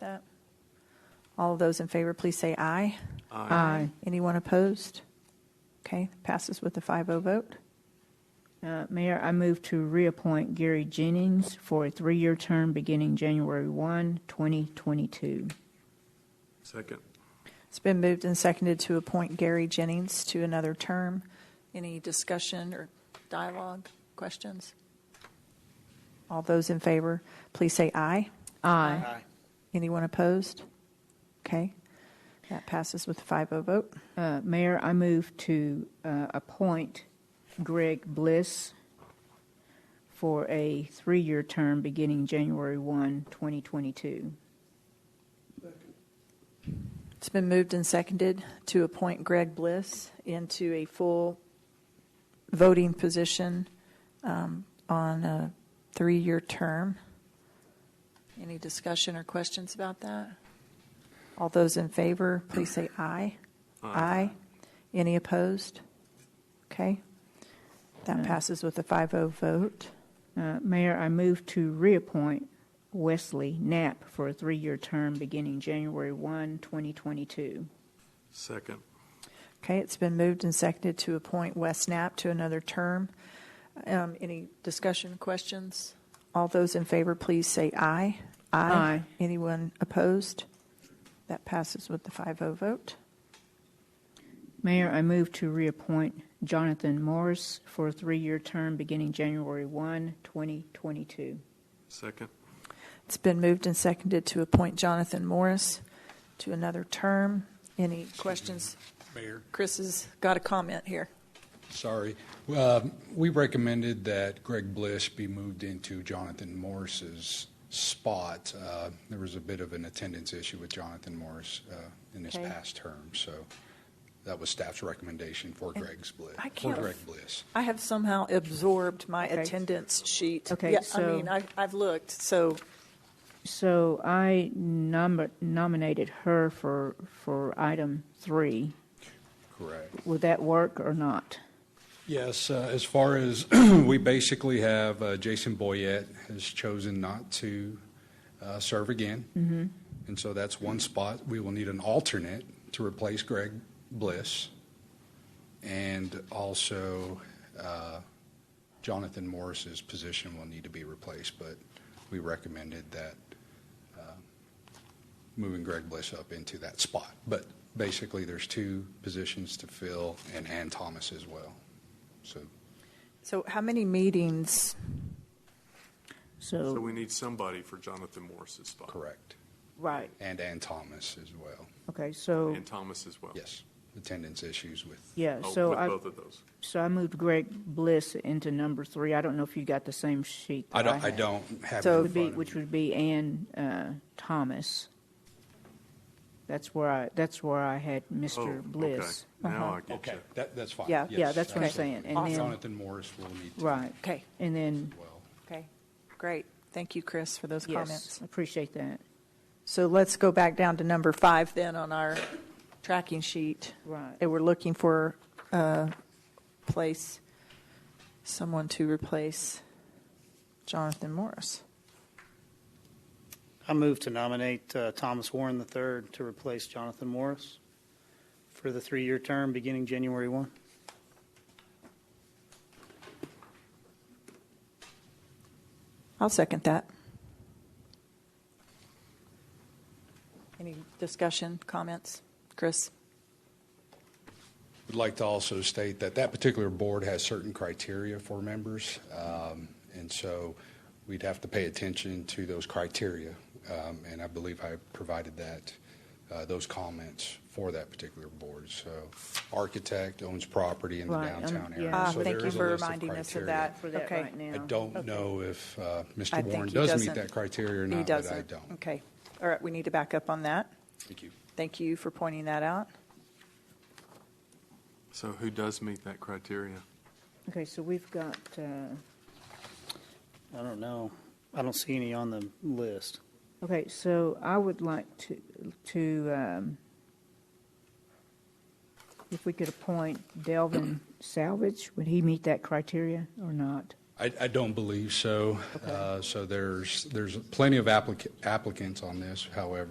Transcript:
that? All of those in favor, please say aye. Aye. Anyone opposed? Okay, passes with a 5-0 vote. Uh, Mayor, I move to reappoint Gary Jennings for a three-year term beginning January 1, 2022. Second. It's been moved and seconded to appoint Gary Jennings to another term. Any discussion or dialogue, questions? All those in favor, please say aye. Aye. Anyone opposed? Okay, that passes with a 5-0 vote. Uh, Mayor, I move to uh, appoint Greg Bliss for a three-year term beginning January 1, 2022. It's been moved and seconded to appoint Greg Bliss into a full voting position um, on a three-year term. Any discussion or questions about that? All those in favor, please say aye. Aye. Any opposed? Okay. That passes with a 5-0 vote. Uh, Mayor, I move to reappoint Wesley Knapp for a three-year term beginning January 1, 2022. Second. Okay, it's been moved and seconded to appoint Wes Knapp to another term. Um, Any discussion, questions? All those in favor, please say aye. Aye. Anyone opposed? That passes with the 5-0 vote. Mayor, I move to reappoint Jonathan Morris for a three-year term beginning January 1, 2022. Second. It's been moved and seconded to appoint Jonathan Morris to another term. Any questions? Mayor, Chris has got a comment here. sorry. Um, We recommended that Greg Bliss be moved into Jonathan Morris's spot. Uh, There was a bit of an attendance issue with Jonathan Morris uh, in his Okay. past term, so that was staff's recommendation for Greg's Bliss, I for can't- Greg Bliss. I have somehow absorbed my Okay. attendance sheet. Okay, Yeah, I so- mean, I- I've looked, so So I nom- nominated her for, for item three. Correct. Would that work or not? Yes, uh, as far as, we basically have, uh, Jason Boyette has chosen not to uh, serve again. And so that's one spot. We will need an alternate to replace Greg Bliss and also uh, Jonathan Morris's position will need to be replaced, but we recommended that uh, moving Greg Bliss up into that spot. But basically, there's two positions to fill and Ann Thomas as well. So so how many meetings So So, we need somebody for Jonathan Morris's spot. correct. right, And Ann Thomas as well. okay, so, And Thomas as well. Yes, attendance issues with. yeah, Oh, so with I, both of those. so I moved Greg Bliss into number three. I don't know if you got the same sheet I that I don't, I had. don't have. it So in it would be, front of which me. would be Ann uh, Thomas. That's where I, that's where I had Oh, Mr. okay. Bliss. Uh-huh. Now I get Okay, you. that, that's fine. Yeah. Yeah, Yes, that's what I'm absolutely. saying. And Awesome. then- Jonathan Morris will need to. Right. Okay. And then, Well, Okay, great. Thank you, Chris, for those yes, comments. appreciate that. So let's go back down to number five then on our tracking sheet. Right. And we're looking for a place, someone to replace Jonathan Morris. I move to nominate uh, Thomas Warren III to replace Jonathan Morris for the three-year term beginning January 1. I'll second that. Any discussion, comments? Chris? Would like to also state that that particular board has certain criteria for members. um, And so we'd have to pay attention to those criteria. um, And I believe I provided that, uh, those comments for that particular board. So architect owns property in the Right, um, downtown yeah. area. Ah, So there Thank you is a for list of reminding us of criteria. that. For that Okay. right now. I don't know if uh, I Mr. think Warren he does doesn't. meet that criteria or He not, but I doesn't. don't. Okay. All right, we need to back up on that. Thank you. Thank you for pointing that out. So who does meet that criteria? Okay, so we've got, uh, I don't know. I don't see any on the list. okay, so I would like to, to, um, if we could appoint Delvin Salvage, would he meet that criteria or not? I, I don't believe so. Uh, So there's, there's plenty of applica- applicants on this, however.